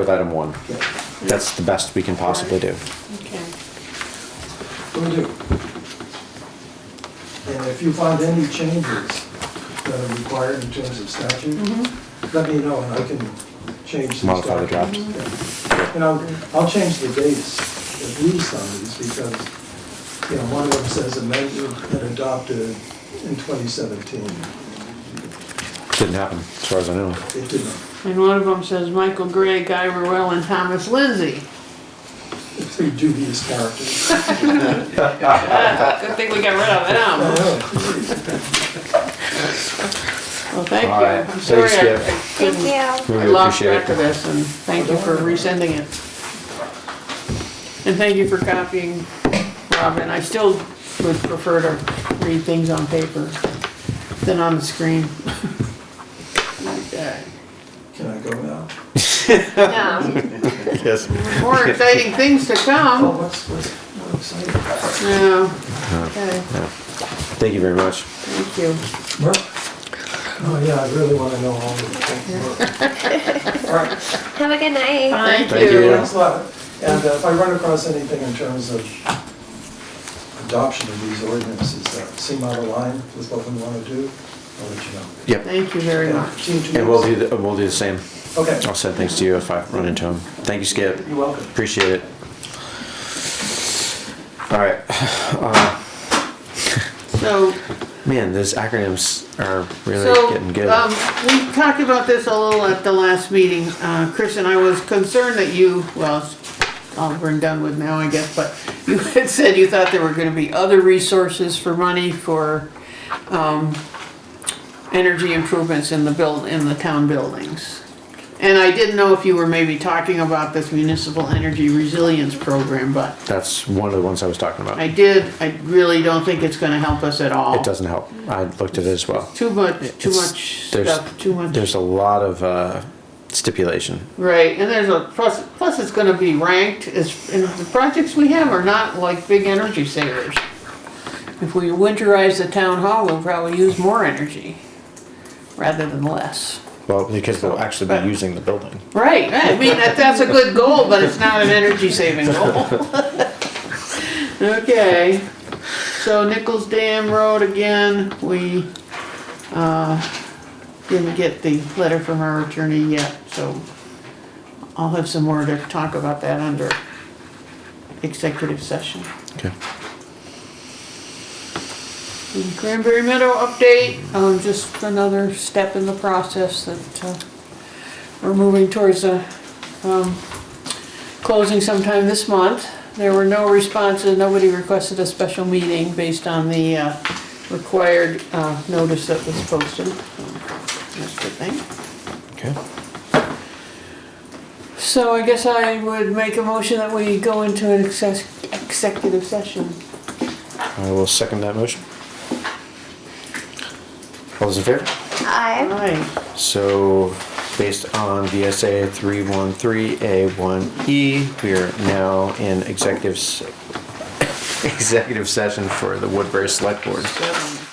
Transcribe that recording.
with item one. That's the best we can possibly do. Okay. Will do. And if you find any changes that are required in terms of statute, Mm-hmm. let me know and I can change the statute. Modify the draft. Yeah. And I'll, I'll change the dates at least on these because, you know, one of them says amended and adopted in 2017. Didn't happen, as far as I know. It didn't. And one of them says Michael Gray, Guy Rowell, and Thomas Lindsay. It's a dubious character. Good thing we got rid of them. Well, thank you. All right. I'm sorry Thanks, Skip. I- I Thank couldn't- you. We I really lost appreciate track of it. this, and thank you for resending it. And thank you for copying, Robin. I still would prefer to read things on paper than on the screen. Okay. Can I go now? Yeah, Yes. More exciting things to Oh, come. what's, what's, what exciting? Yeah. Okay, Thank you very much. thank you. Mark? Oh, yeah, I really want to know all the things. All right, Have a good night. Thank Thank you. you. thanks a lot. And uh, if I run across anything in terms of adoption of these ordinances that seem out of line with what we want to do, I'll let you know. Yep. Thank you very Yeah, much. Team two And we'll do, minutes. the- we'll do the same. Okay, I'll send things to you if I run into them. Thank you, Skip. you're welcome. Appreciate it. All right. Uh, So, Man, those acronyms are really so, getting good. um, we talked about this a little at the last meeting, uh, Chris and I was concerned that you, well, it's all we're done with now, I guess, but you had said you thought there were gonna be other resources for money for, um, energy improvements in the build, in the town buildings. And I didn't know if you were maybe talking about this municipal energy resilience program, but That's one of the ones I was talking about. I did, I really don't think it's gonna help us at all. It doesn't help. I looked at it as well. Too much, too It's- much there's- stuff, too much, There's a lot of uh, stipulation. right, and there's a, plus, plus it's gonna be ranked, as and the projects we have are not like big energy savers. If we winterize the town hall, we'll probably use more energy rather than less. Well, because they'll actually be using the building. Right, I mean, that, that's a good goal, but it's not an energy saving goal. Okay, so Nichols Dam Road again, we, uh, didn't get the letter from our attorney yet, so I'll have some more to talk about that under executive session. Okay. And Cranberry Meadow update, um, just another step in the process that, uh, we're moving towards a, um, closing sometime this month. There were no responses, nobody requested a special meeting based on the, uh, required, uh, notice that was posted. So, That's a good thing. Okay. So I guess I would make a motion that we go into an exec- executive session. I will second that motion. All those in favor? Hi. Aye. So, based on VSA 313A1E, E, we are now in executive, s- executive session for the Woodbury Select Board. Seven